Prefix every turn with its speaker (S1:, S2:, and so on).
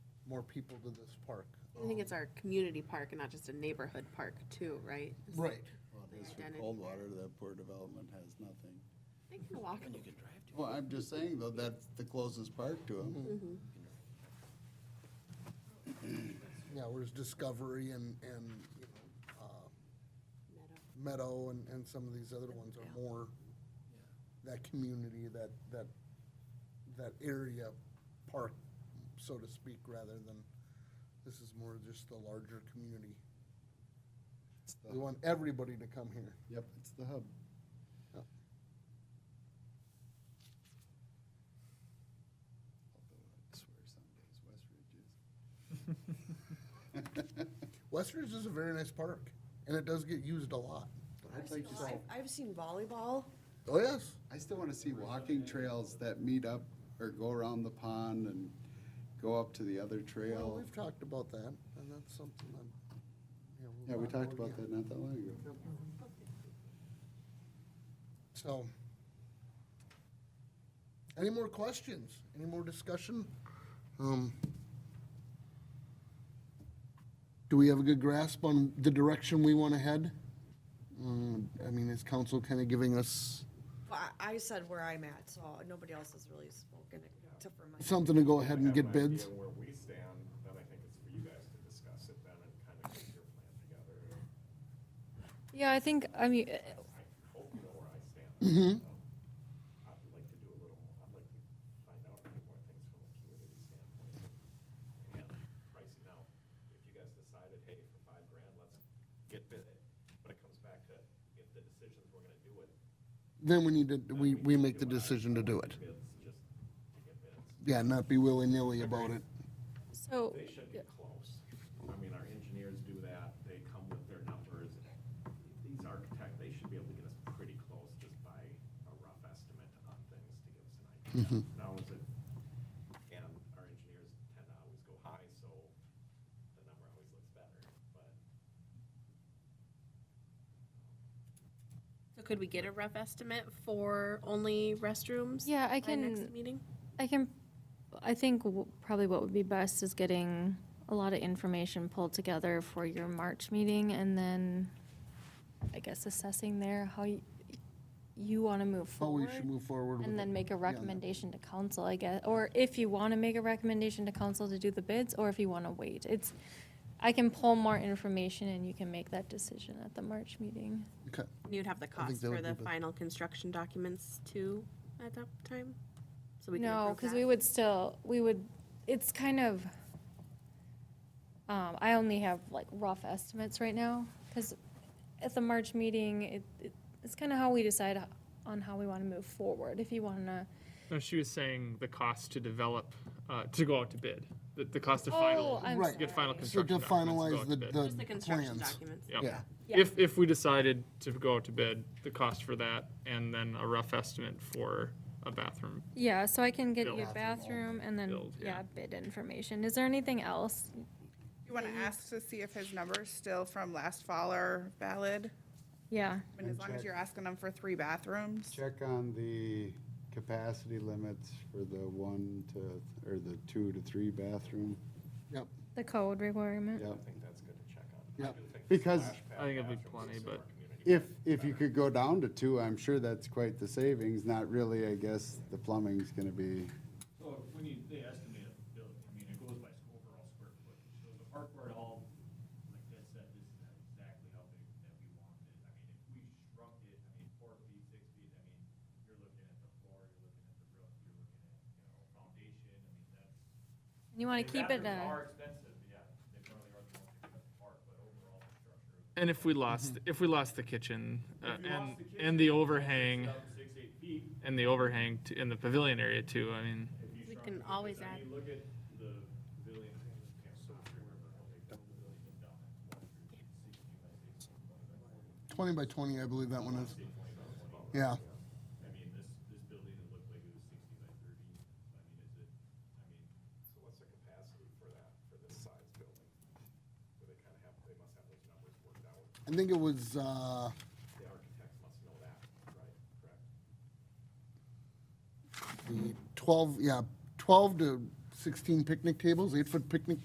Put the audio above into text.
S1: more people to this park.
S2: I think it's our community park and not just a neighborhood park too, right? Is-
S1: Right.
S3: Well, it is for
S2: Identity.
S3: Coldwater, that poor development has nothing.
S2: They can walk.
S3: Well, I'm just saying though, that's the closest park to
S2: Mm-hmm.
S3: them.
S1: Yeah, where's Discovery and, and, you know, uh,
S2: Meadow.
S1: Meadow and, and some of these other ones are more that community, that, that, that area park, so to speak, rather than, this is more just the larger community. We want everybody to come here.
S3: Yep, it's the hub.
S1: Yep.
S3: Although I swear some days West Ridge is.
S1: Westridge is a very nice park, and it does get used a lot.
S3: I'd like to see,
S4: I've- I've seen volleyball.
S1: Oh, yes.
S3: I still wanna see walking trails that meet up or go around the pond and go up to the other
S1: Well,
S3: trail.
S1: we've talked about that, and that's something I'm. you know, we'll
S3: Yeah, we
S1: talk
S3: talked about that not that long ago.
S1: again. So. Any more questions? Any more discussion? Um. Do we have a good grasp on the direction we want to head? Um, I mean, is council kind of giving us
S4: Well, I- I said where I'm at, so nobody else has really spoken except for myself.
S1: something to go ahead and
S5: have
S1: get
S5: an idea
S1: bids?
S5: Where we stand, then I think it's for you guys to discuss it then and kind of get your plan together.
S6: Yeah, I think, I mean, uh,
S5: I hope you know where I stand. Um, I'd like to do a little, I'd like to find out a few more things from a community standpoint. And pricing out, if you guys decided, hey, for five grand, let's get bid it, but it comes back to, if the decisions we're gonna do it,
S1: Then we need to, we, we make the decision to do it.
S5: bids, just to get bids.
S1: Yeah, not be willy-nilly about it.
S6: so,
S5: They should be close. I mean, our engineers do that, they come with their numbers. These architect, they should be able to get us pretty close just by a rough estimate on things to give us an idea. Now, is it, and our engineers tend to always go high, so the number always looks better, but
S2: So could we get a rough estimate for only restrooms?
S6: yeah, I
S2: by next
S6: can,
S2: Meeting?
S6: I can, I think w- probably what would be best is getting a lot of information pulled together for your March meeting and then, I guess, assessing there how you, you want to move
S1: How
S6: forward.
S1: we should move forward. with
S6: And then
S1: it.
S6: make a
S1: Yeah.
S6: recommendation to council, I guess, or if you want to make a recommendation to council to do the bids, or if you want to wait. It's, I can pull more information and you can make that decision at the March meeting.
S1: Okay.
S2: You'd have the cost
S1: that
S2: for
S1: would
S2: the
S1: be the-
S2: final construction documents too at that time? So we can
S6: No,
S2: approve
S6: because
S2: that?
S6: we would still, we would, it's kind of, um, I only have like rough estimates right now, because at the March meeting, it, it- it's kind of how we decide on how we want to move forward. If you want to,
S7: No, she was saying the cost to develop, uh, to go out to bid, the, the cost to
S6: oh,
S7: final,
S6: I'm
S1: Right.
S7: get final
S6: sorry.
S1: So to
S7: construction
S1: finalize
S7: documents.
S1: the,
S7: to go out
S2: Just the
S7: to bid.
S1: the
S2: construction
S1: plans.
S2: documents.
S7: Yep.
S1: Yeah.
S7: If, if we decided to go out to bid, the cost for that, and then a rough estimate for a bathroom.
S6: Yeah, so I can get
S7: Build.
S6: your bathroom and then,
S7: Build,
S6: yeah,
S7: yeah.
S6: bid information. Is there anything else?
S8: You want to ask to see if his numbers still from last fall are valid?
S6: Yeah,
S8: I mean, as long as you're asking them for three bathrooms.
S3: Check on the capacity limits for the one to, or the two to three bathroom.
S1: Yep.
S6: the code requirement.
S3: Yep.
S5: I think that's good to check on.
S1: Yeah.
S5: I do think the
S3: Because-
S5: splash pad
S7: I think it'd be
S5: bathrooms
S7: plenty,
S5: is
S7: but-
S5: our community
S3: If, if you could go down to two, I'm sure that's quite the savings. Not really, I guess, the plumbing's gonna be,
S9: So when you, they estimate a building, I mean, it goes by s- overall square footage. So the park board all, like that said, this is not exactly how big that we want it. I mean, if we shrunk it, I mean, four feet, six feet, I mean, you're looking at the floor, you're looking at the roof, you're looking at, you know, foundation, I mean, that's.
S6: You want
S9: I mean,
S6: to keep it,
S9: bathrooms
S6: uh,
S9: Are expensive, yeah. They probably are the most expensive part, but overall, the structure. of-
S7: And if we lost,
S1: Mm-hmm.
S7: if we lost the kitchen, uh,
S9: If you
S7: and,
S9: lost the kitchen,
S7: and the
S9: it's
S7: overhang,
S9: up Six, eight feet,
S7: and the overhang to- in the pavilion area too, I mean,
S9: if you
S2: We
S9: shrunk
S2: can
S9: it,
S2: always
S9: I mean,
S2: add-
S9: Look at the pavilion, I think it's Camp Sox, remember how they built the pavilion and down that wall street, 16 by 16, 20 by 40.
S1: Twenty by twenty, I believe that one is. Yeah.
S9: I mean, this, this building, it looked like it was sixty by thirty, I mean, is it, I mean,
S5: So what's the capacity for that, for this size building? Where they kind of have, they must have those numbers worked out.
S1: I think it was, uh,
S5: The architects must know that, right?
S1: the
S5: Correct?
S1: twelve, yeah, twelve to sixteen picnic tables, eight-foot picnic